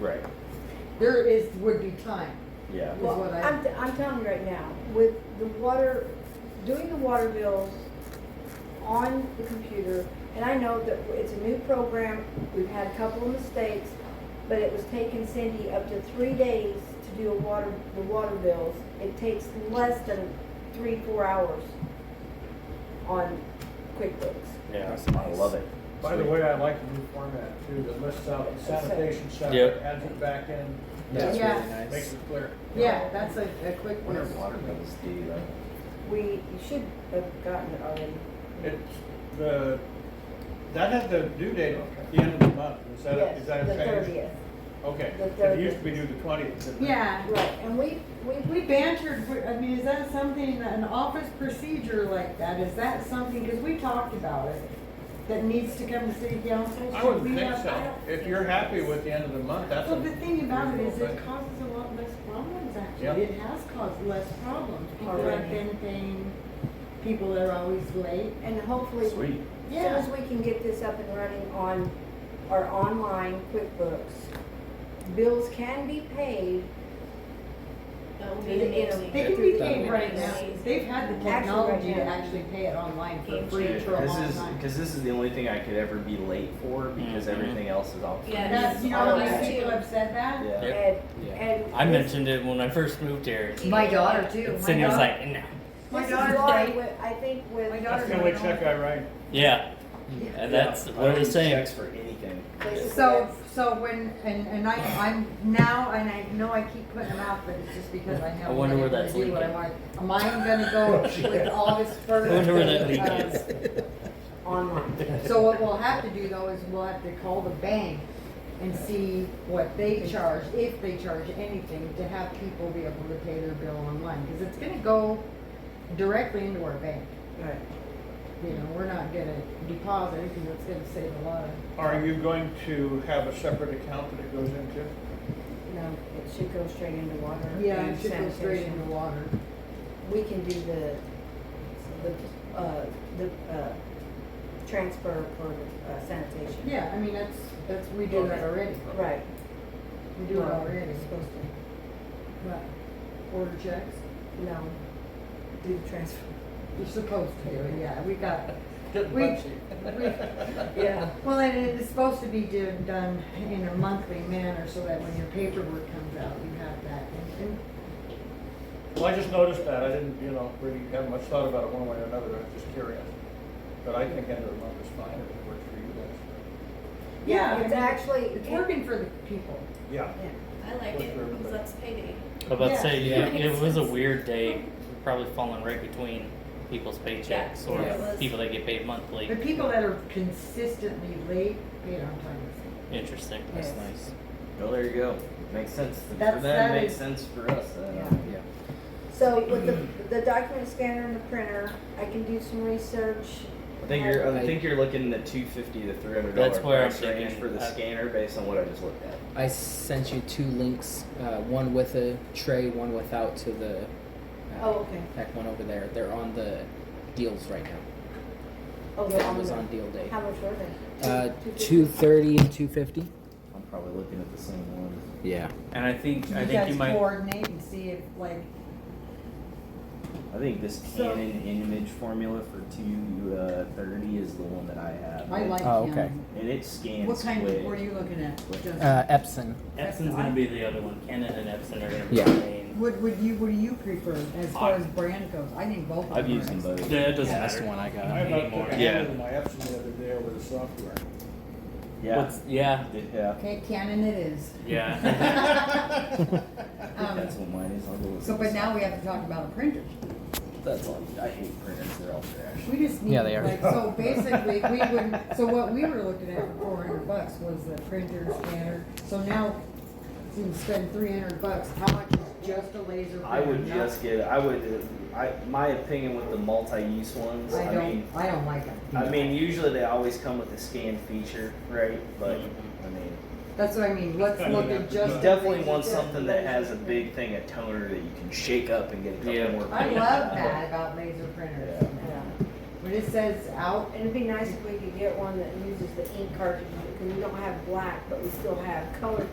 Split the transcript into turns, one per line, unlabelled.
Right,
There is, would be time.
yeah,
Well-
Well,
what I-
I'm, t- I'm telling you right now, with the water, doing the water bills on the computer, and I know that it's a new program, we've had a couple of mistakes, but it was taking Cindy up to three days to do a water, the water bills. It takes less than three, four hours on QuickBooks.
yeah,
That's
I
nice.
love it.
By the way, I like the new format too, that lists out the sanitation
Yep.
separate, adds it back in,
That's
Yeah.
really nice.
makes it clear.
Yeah, that's a, a quick
I
one.
wonder if water bills do like,
We, you should have gotten it already.
It's the, that had the due date at the end of the month, is that, is
Yes,
that
the
changed?
thirtieth,
Okay,
The
it used to be
30th.
due the twentieth.
Yeah,
right, and we, we,
we bantered, we- I mean, is that something, an office procedure like that, is that something, because we talked about it, that needs to come to city council?
I
Should
wouldn't
we
think
have- I
so,
don't-
if you're happy with the end of the month, that's.
Well,
a
the thing about it is
reasonable
it
thing.
causes a lot less problems,
Yep.
actually. It has caused less problems. People have
Already.
been paying, people that are always late.
and hopefully.
sweet,
As soon as we can get this up and running on our online QuickBooks, bills can be paid.
That will be
Is it
next
in a-
week.
They can be paid right now. They've had the
Actually, right
technology to
now.
actually pay it online for
Yeah,
free for a
this
long
is,
time.
cause this is the only thing I could ever be late for, because
Mhm.
Mm-hmm.
everything else is off.
Yeah.
That's, you know,
All
like
right.
people have said that.
Yeah.
Yep.
And,
Yeah.
and.
I
this-
mentioned it when I first moved here.
My daughter too. My
Cindy was
daughter-
like, no.
My
this is
daughter's
why
date.
with- I think
My
with,
That's
daughter's
the only
going
check
on.
I write.
Yeah. And that's
I
what
don't
it was
even
saying.
Checks for anything.
basically
So,
that's-
so when, and, and I, I'm now, and I know I keep putting them out, but it's just because I know.
I wonder
I'm
where
gonna
that's
do what I
leaking.
want. Am I gonna go with August first?
I wonder where that leak is.
online.
So what we'll have to do though is we'll have to call the bank and see what they charge, if they charge anything, to have people be able to pay their bill online, because it's gonna go directly into our bank.
Right.
You know, we're not gonna deposit, because it's gonna save a lot of,
Are you going to have a separate account that it goes into?
you know,
It should go straight into water.
yeah,
and
it should go straight
sanitation.
into water.
We can do the, the, uh, the, uh, transfer for uh, sanitation.
Yeah, I mean, that's, that's, we do that already,
Right.
we do it
Well,
already,
it's Supposed to,
but order checks,
no, do the transfer.
you're supposed to, yeah, we got,
Get
We-
Betsy.
we-
Yeah.
Well, and it is supposed to be do- done in a monthly manner so that when your paperwork comes out, you have that. And- and-
Well, I just noticed that, I didn't, you know, really have much thought about it one way or another, I was just curious. But I think end of the month is fine, if it works for you guys.
Yeah,
It's
I mean,
actually.
It's working for the people.
Yeah.
Yeah.
I like it because that's payday.
I was about
Yeah.
to say,
Yeah.
it, it was a weird day. Probably falling right between people's paychecks or
Yeah, it was.
people that get paid
The
monthly.
people that are consistently late, paid on time.
Interesting.
That's
Yes.
nice.
Well, there you go, makes sense for
That's-
them,
that
makes
is-
sense for us, uh,
Yeah.
Yeah.
So with the, the document scanner and the printer, I can do some research.
I think you're, I
I- uh,
think you're looking in the two fifty to three hundred dollar
That's where I'm
price range
thinking. Uh,
for the
I-
scanner based on what I just looked at.
I sent you two links, uh, one with a tray, one without to the uh,
Oh, okay.
pack one over there. They're on the deals right now.
Oh, they're
It
on
was
the,
on deal day.
how much were they?
Uh, two
250?
thirty and two fifty.
I'm probably looking at the same one.
Yeah.
And I think I
You
think you
guys
might
coordinate and see if, like,
I think this
So-
Canon image formula for two uh, thirty is the one that I have.
I like
Oh, okay.
him.
And it scans
What kind
quick.
were you looking at? Justin?
Uh, Epson.
Epson's gonna be the other one. Canon and Epson are gonna be
Yeah.
the main.
What would you, what do you prefer as far as brand goes? I think both of them.
I've used
are
them
excellent.
both.
Yeah, it doesn't
Yeah, that's
matter.
the one I
I
got.
about
Anymore.
to
Yeah.
handle my Epson the other day over the software.
Yeah.
What's- yeah.
Yeah.
Okay, Canon it is.
Yeah.
Um,
That's what mine is. I'll go with
So, but now we have to talk about a printer.
That's all. I hate printers. They're all trash.
We just need,
Yeah, they are.
like, so basically, we would, so what we were looking at for four hundred bucks was the printer, scanner, so now, you can spend three hundred bucks, how much is just a laser printer?
I would
Not-
just get. I would. uh, I my opinion with the multi-use ones.
I
I, mean,
don't, I don't like them,
I mean, usually they always come with a scan feature, right? But I mean,
that's what I mean, let's
Kinda
look at
have to-
just.
you
a
definitely
laser-
want
just a
something that has a
laser
big thing, a toner that you can shake up and get a couple
Yeah.
more.
printer. I
prints out
love
of.
that about laser printers,
Yeah.
Yeah.
when it says out,
And it'd be nice if we could get one that uses the ink cartridges, because we don't have black, but we still have colored